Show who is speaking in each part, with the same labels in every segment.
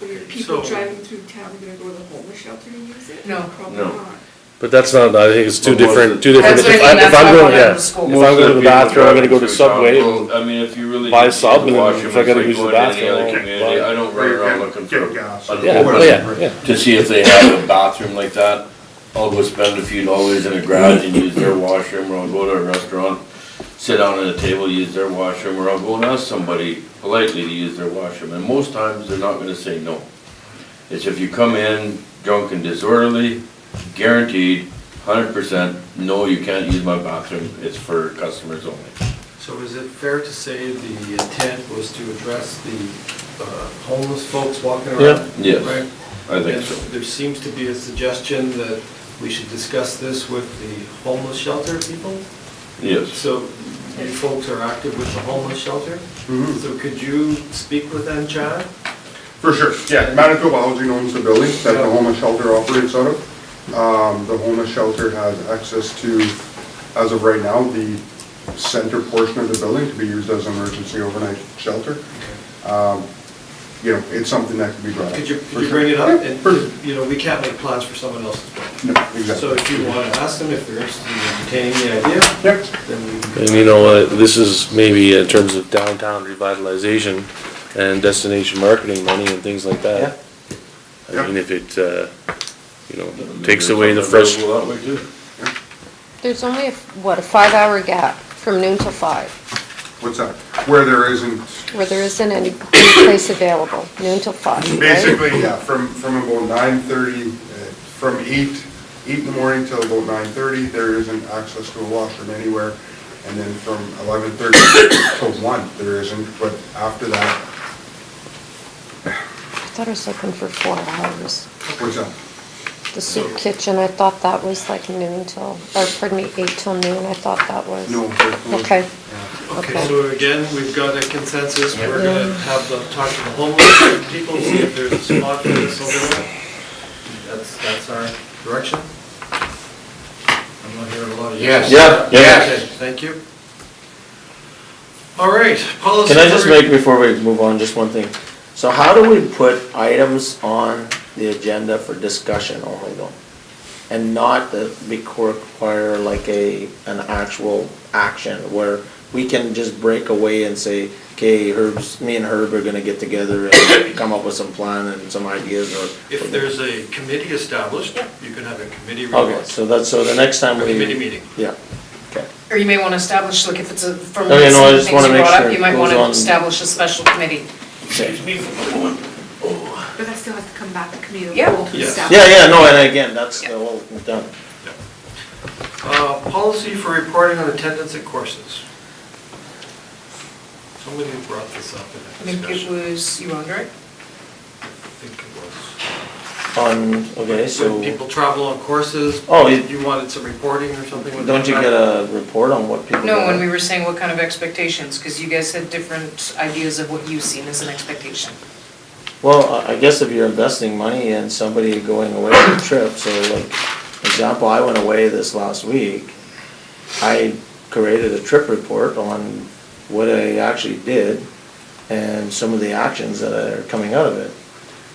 Speaker 1: Were there people
Speaker 2: So-
Speaker 1: driving through town gonna go to the homeless shelter and use it?
Speaker 3: No.
Speaker 1: Probably
Speaker 4: No.
Speaker 1: not.
Speaker 5: But that's not, I think it's two
Speaker 4: But was
Speaker 5: different,
Speaker 4: it-
Speaker 5: two different.
Speaker 3: That's what I
Speaker 5: If
Speaker 3: mean,
Speaker 5: I- if
Speaker 3: that's
Speaker 5: I'm
Speaker 3: why I
Speaker 5: going,
Speaker 3: wanted
Speaker 5: yeah.
Speaker 3: to school.
Speaker 5: If I'm going to the bathroom, I'm gonna go to Subway.
Speaker 4: Well, I mean, if you really.
Speaker 5: buy
Speaker 4: need
Speaker 5: sub,
Speaker 4: to
Speaker 5: and
Speaker 4: wash them,
Speaker 5: if I gotta
Speaker 4: it's like
Speaker 5: use the
Speaker 4: going to any
Speaker 5: bathroom,
Speaker 4: other
Speaker 5: I'll
Speaker 4: community.
Speaker 5: buy-
Speaker 4: I don't run around looking for.
Speaker 2: Get gas.
Speaker 4: a
Speaker 5: Yeah, oh,
Speaker 4: homeless
Speaker 5: yeah, yeah.
Speaker 4: to see if they have a bathroom like that. I'll go spend a few dollars in a garage and use their washroom, or I'll go to a restaurant, sit down at a table, use their washroom, or I'll go and ask somebody politely to use their washroom, and most times they're not gonna say no. It's if you come in drunk and disorderly, guaranteed, hundred percent, no, you can't use my bathroom, it's for customers only.
Speaker 6: So is it fair to say the intent was to address the uh, homeless folks walking around?
Speaker 4: Yeah. Yes,
Speaker 6: Right?
Speaker 4: I think
Speaker 6: And
Speaker 4: so.
Speaker 6: There seems to be a suggestion that we should discuss this with the homeless shelter people.
Speaker 4: Yes.
Speaker 6: So you folks are active with the homeless shelter?
Speaker 2: Mm-hmm.
Speaker 6: So could you speak with them, Chad?
Speaker 2: For sure, yeah, Manitoba Housing owns the building that the homeless shelter operates out of. Um, the homeless shelter has access to, as of right now, the center portion of the building to be used as an emergency overnight shelter. Um, you know, it's something that could be brought up.
Speaker 6: Could you,
Speaker 2: for
Speaker 6: could you
Speaker 2: sure.
Speaker 6: bring it up?
Speaker 2: Yeah, for sure.
Speaker 6: And, you know, we can't make plans for someone else's plan.
Speaker 2: No,
Speaker 6: So
Speaker 2: Exactly.
Speaker 6: if you want to ask them if they're interested in entertaining the idea,
Speaker 2: Yep.
Speaker 6: then we.
Speaker 5: And you know, uh, this is maybe in terms of downtown revitalization and destination marketing money and things like that. I
Speaker 2: Yeah.
Speaker 5: mean, if it, uh, you know, takes away the fresh,
Speaker 4: That way too.
Speaker 7: There's only, a what, a five-hour gap from noon till five,
Speaker 2: What's that? Where there isn't
Speaker 7: where there isn't any place available, noon till five, right?
Speaker 2: Basically, yeah, from, from about nine thirty, uh, from eight, eight in the morning till about nine thirty, there isn't access to a washroom anywhere. And then from eleven thirty to one, there isn't, but after that,
Speaker 7: I thought I was looking for four hours.
Speaker 2: what's up?
Speaker 7: The soup kitchen, I thought that was like noon till, or pardon me, eight till noon, I thought that was.
Speaker 2: No. there's no-
Speaker 7: Okay.
Speaker 2: Yeah.
Speaker 6: Okay,
Speaker 7: Okay.
Speaker 6: so again, we've got a consensus, we're gonna have the, talk to the homeless people, see if there's a spot for this over there. That's, that's our direction. I'm not hearing a lot of yes.
Speaker 5: Yeah, yeah.
Speaker 6: Okay, Thank you. All right, policy.
Speaker 8: Can I just
Speaker 6: number-
Speaker 8: make, before we move on, just one thing? So how do we put items on the agenda for discussion only though? And not the, require like a, an actual action where we can just break away and say, okay, Herb's, me and Herb are gonna get together and come up with some plan and some ideas or.
Speaker 6: If there's a committee established, you can have a committee
Speaker 8: Okay,
Speaker 6: report,
Speaker 8: so that's, so the next time
Speaker 6: a
Speaker 8: we.
Speaker 6: committee meeting.
Speaker 8: Yeah, okay.
Speaker 3: Or you may want to establish, like, if it's a, from
Speaker 8: No, yeah, no, I
Speaker 3: some of the
Speaker 8: just
Speaker 3: things
Speaker 8: wanna
Speaker 3: you
Speaker 8: make
Speaker 3: brought
Speaker 8: sure
Speaker 3: up, you
Speaker 8: it
Speaker 3: might
Speaker 8: goes
Speaker 3: want to
Speaker 8: on-
Speaker 3: establish a special committee.
Speaker 4: Excuse me for a moment. Oh.
Speaker 1: But that still has to come back to committee. of the
Speaker 3: Yeah.
Speaker 1: whole to
Speaker 6: Yes.
Speaker 1: establish.
Speaker 8: Yeah, yeah, no, and again, that's the
Speaker 3: Yeah.
Speaker 8: whole, done.
Speaker 6: Uh, Policy for reporting on attendance at courses. Somebody brought this up
Speaker 3: I
Speaker 6: in a
Speaker 3: think it
Speaker 6: discussion.
Speaker 3: was you, Andre?
Speaker 6: I think it was.
Speaker 8: On, okay, so.
Speaker 6: When people travel on courses,
Speaker 8: Oh, you-
Speaker 6: you wanted some reporting or something? with
Speaker 8: Don't you
Speaker 6: that?
Speaker 8: get a report on what people?
Speaker 3: No,
Speaker 8: got?
Speaker 3: when we were saying what kind of expectations, because you guys had different ideas of what you've seen as an expectation.
Speaker 8: Well, I I guess if you're investing money in somebody going away on a trip, so like, example, I went away this last week. I created a trip report on what I actually did and some of the actions that are coming out of it.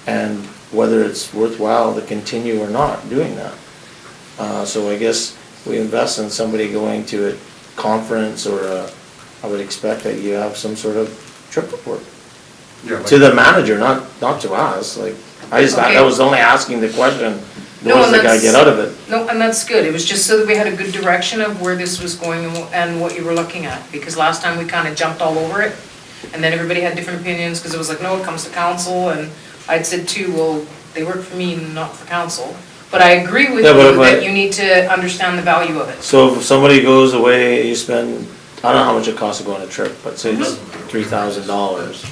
Speaker 8: And whether it's worthwhile to continue or not doing that. Uh, so I guess we invest in somebody going to a conference or a, I would expect that you have some sort of trip report.
Speaker 2: Yeah, like-
Speaker 8: To the manager, not, not to us, like, I just, I I was only asking the question,
Speaker 3: No,
Speaker 8: what does the
Speaker 3: and
Speaker 8: guy get
Speaker 3: that's-
Speaker 8: out of it?
Speaker 3: No, and that's good, it was just so that we had a good direction of where this was going and wh- and what you were looking at, because last time we kind of jumped all over it, and then everybody had different opinions, because it was like, no, it comes to council, and I'd said too, well, they work for me, not for council. But I agree with
Speaker 8: Yeah, but
Speaker 3: you
Speaker 8: if I-
Speaker 3: that you need to understand the value of it.
Speaker 8: So if somebody goes away, you spend, I don't know how much it costs to go on a trip, but say it's three thousand dollars.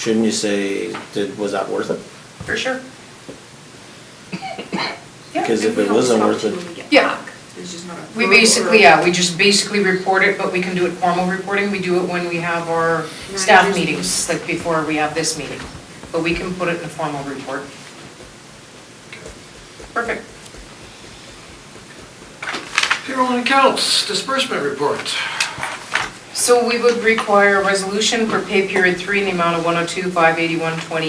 Speaker 8: Shouldn't you say, did, was that worth it?
Speaker 3: For sure. Yeah.
Speaker 8: Because if
Speaker 1: We
Speaker 8: it
Speaker 1: don't
Speaker 8: wasn't
Speaker 1: stop
Speaker 8: worth
Speaker 1: till
Speaker 8: it,
Speaker 1: we get
Speaker 3: Yeah.
Speaker 1: back. There's just not a
Speaker 3: We
Speaker 1: thorough-
Speaker 3: basically, yeah, we just basically report it, but we can do it formal reporting, we do it when we have our staff
Speaker 1: Managers meeting.
Speaker 3: meetings, like before we have this meeting. But we can put it in a formal report. Perfect.
Speaker 6: Payroll and accounts, disbursement report.
Speaker 3: So we would require a resolution for pay period three in the amount of one oh two, five eighty-one, twenty